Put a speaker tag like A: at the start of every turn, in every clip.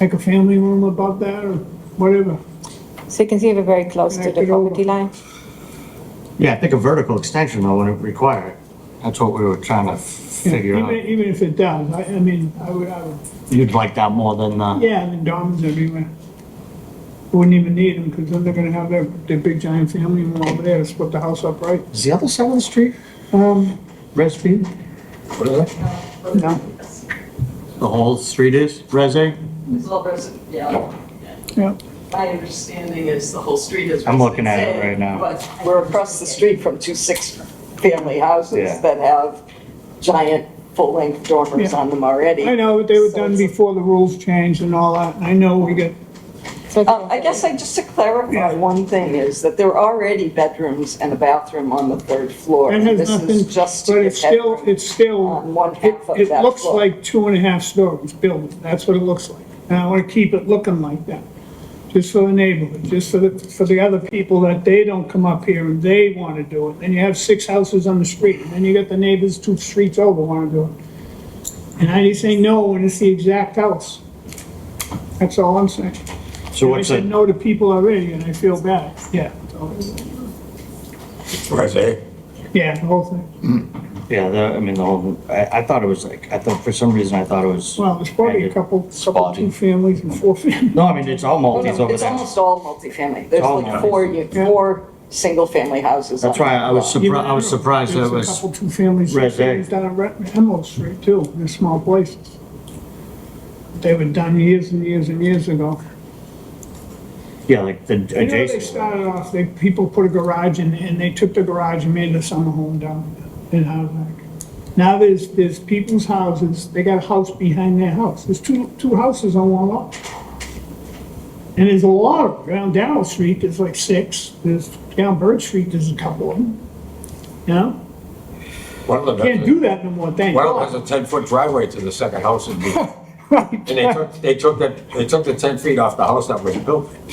A: like a family room above that or whatever.
B: So you can see we're very close to
A: Connect
B: the
A: it over.
B: property line.
C: Yeah, I think a vertical extension though wouldn't require it. That's what we were trying to
A: Yeah,
C: figure
A: even,
C: out.
A: even if it does, I, I mean, I would, I would,
C: You'd like that more than, uh,
A: yeah, and then dorms everywhere. Wouldn't even need them because then they're gonna have their, their big giant family room over there to split the house up, right?
C: is the other side of the street,
A: Um,
C: Resfield? What is that?
A: no,
C: The whole street is Resi?
D: It's all resi- yeah.
A: yeah.
D: My understanding is the whole street is.
C: I'm looking at it
D: residential,
C: right now.
D: But
E: We're across the street from two six-family
C: Yeah.
E: houses that have giant full-length dormers
A: Yeah.
E: on them already.
A: I know, but they were
E: So
A: done
E: it's-
A: before the rules changed and all that. and I know we got,
B: So it's-
E: Um, I guess I, just to
A: Yeah.
E: clarify, one thing is that there are already bedrooms and a bathroom on the third floor.
A: that
E: and
A: has
E: This
A: nothing,
E: is just
A: but
E: to
A: it's
E: get
A: still,
E: bedroom
A: it's still,
E: on one
A: it,
E: half of
A: it
E: that
A: looks
E: floor.
A: like two and a half stories building. That's what it looks like. And I wanna keep it looking like that. just for the neighborhood, just for the, for the other people that they don't come up here and they want to do it. And you have six houses on the street, and then you got the neighbors two streets over want to do it. And I just say no when it's the exact house. That's all I'm saying.
C: So
A: I
C: what's
A: said
C: it,
A: no to people already, and I feel bad, yeah.
F: Resi.
A: Yeah, the whole thing.
C: yeah, the, I mean, the whole, I, I thought it was like, I thought, for some reason, I thought it was,
A: Well, there's probably a couple, couple,
F: Spotty.
A: two families and four families.
C: no, I mean, it's all multis over
E: Oh, It's
C: there.
E: almost all multifamily. There's
C: all
E: like four, you- four single-family houses.
C: That's
E: on
C: why
E: that
C: I was
E: block.
C: surprised, I was surprised that
A: There's
C: it
A: a
C: was,
A: couple, two families,
C: Red
A: six families down on Red- Emerald Street too, in small places. They were done years and years and years ago.
C: yeah, like the
A: You know, they
C: adjacent.
A: started off, they, people put a garage in, and they took the garage and made it a summer home down in Hardwick. Now there's, there's people's houses, they got a house behind their house, there's two, two houses on one lot. And there's a lot of, down Darrell Street, there's like six, there's, down Bird Street, there's a couple of them. You know,
F: One of them, has
A: can't
F: a-
A: do that no more, thank
F: one of them has
A: God.
F: a ten-foot driveway to the second house in the, and they took, they took that, they took the ten feet off the house that was built.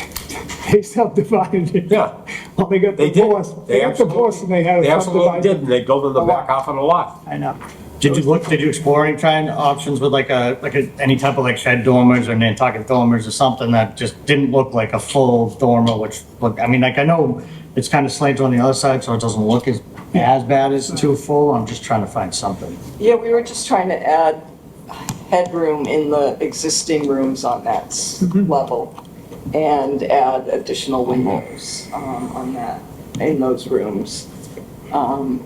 A: They subdivided it.
F: Yeah.
A: Well, they got
F: They did.
A: divorced,
F: They
A: they got
F: absolutely-
A: divorced and they had
F: They
A: it
F: absolutely did,
A: subdivided.
F: and they go to the back half of the lot.
A: I know.
C: Did you look, did you explore any trying options with like a, like a, any type of like shed dormers or Nantucket dormers or something that just didn't look like a full dormer, which, look, I mean, like, I know it's kind of slanted on the other side, so it doesn't look as, as bad as too full, I'm just trying to find something.
E: Yeah, we were just trying to add headroom in the existing rooms on that s- level and add additional windows um, on that, in those rooms. Um,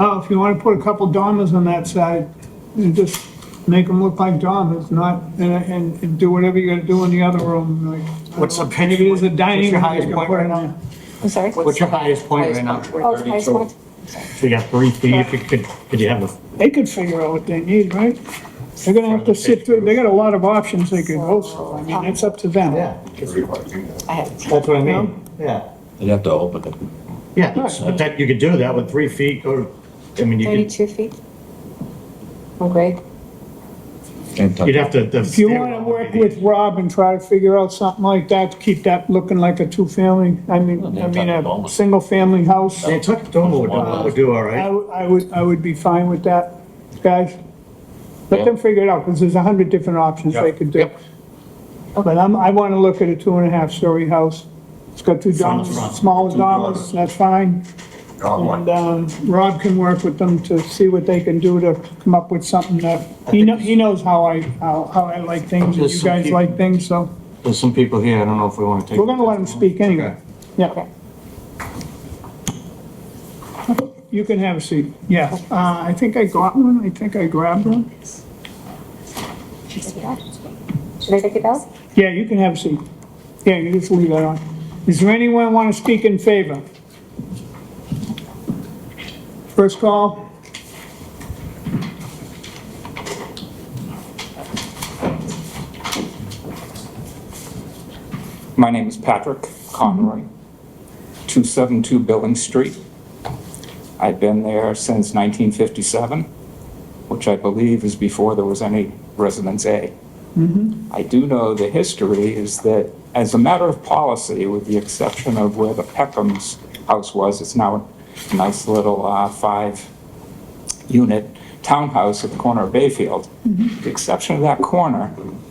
A: Oh, if you want to put a couple dormers on that side, and just make them look like dormers, not, and, and- and do whatever you gotta do in the other room, like. I don't
C: What's the
A: know,
C: pitch-
A: Maybe there's a dining
C: what's your
A: room
C: highest
A: you can
C: point
A: put
C: right
A: in
C: now?
A: there.
B: I'm sorry.
C: What's your highest point right now?
E: highest
B: Oh, it's highest point.
C: So you got three feet, if you could, could you have a,
A: They could figure out what they need, right? They're gonna have to sit through, they got a lot of options they could go through, I mean, it's up to them.
C: yeah,
B: I have.
C: that's what I mean, yeah.
F: You'd have to open it.
C: Yeah, but that, you could do that with three feet, or, I mean, you could,
B: Thirty-two feet. Oh, Okay.
C: you'd have to. the
A: If you wanna
C: stairwell
A: work
C: would be-
A: with Rob and try to figure out something like that, to keep that looking like a two-family, I mean, I
F: they're
A: mean,
F: talking
A: a
F: dormers.
A: single-family house.
C: Nantucket dormer would do, would do all
A: I,
C: right.
A: w- I would, I would be fine with that, guys. Let them figure it out, because there's a hundred different options they could do. But I'm, I want to look at a two and a half story house. It's got two
C: Front,
A: dormers,
C: front.
A: small
F: Two
A: dormers,
F: dormers.
A: that's fine. And, um, Rob can work with them to see what they can do to come up with something that, he knows, he knows how I, how, how I like things, and
C: There's
A: you
C: some
A: guys
C: people-
A: like things, so
C: There's some people here, I don't know if we wanna take.
A: we're gonna let them speak anyway. Yeah. You can have a seat, yeah. Uh, I think I got one, I think I grabbed one.
B: Should I take it out?
A: Yeah, you can have a seat. Yeah, you just leave that on. Is there anyone want to speak in favor? First call?
G: My name is Patrick Conroy, 272 Billing Street. I've been there since 1957, which I believe is before there was any Residence A. I do know the history is that, as a matter of policy, with the exception of where the Peckham's house was, it's now a nice little uh, five-unit townhouse at the corner of Bayfield. The exception of that corner,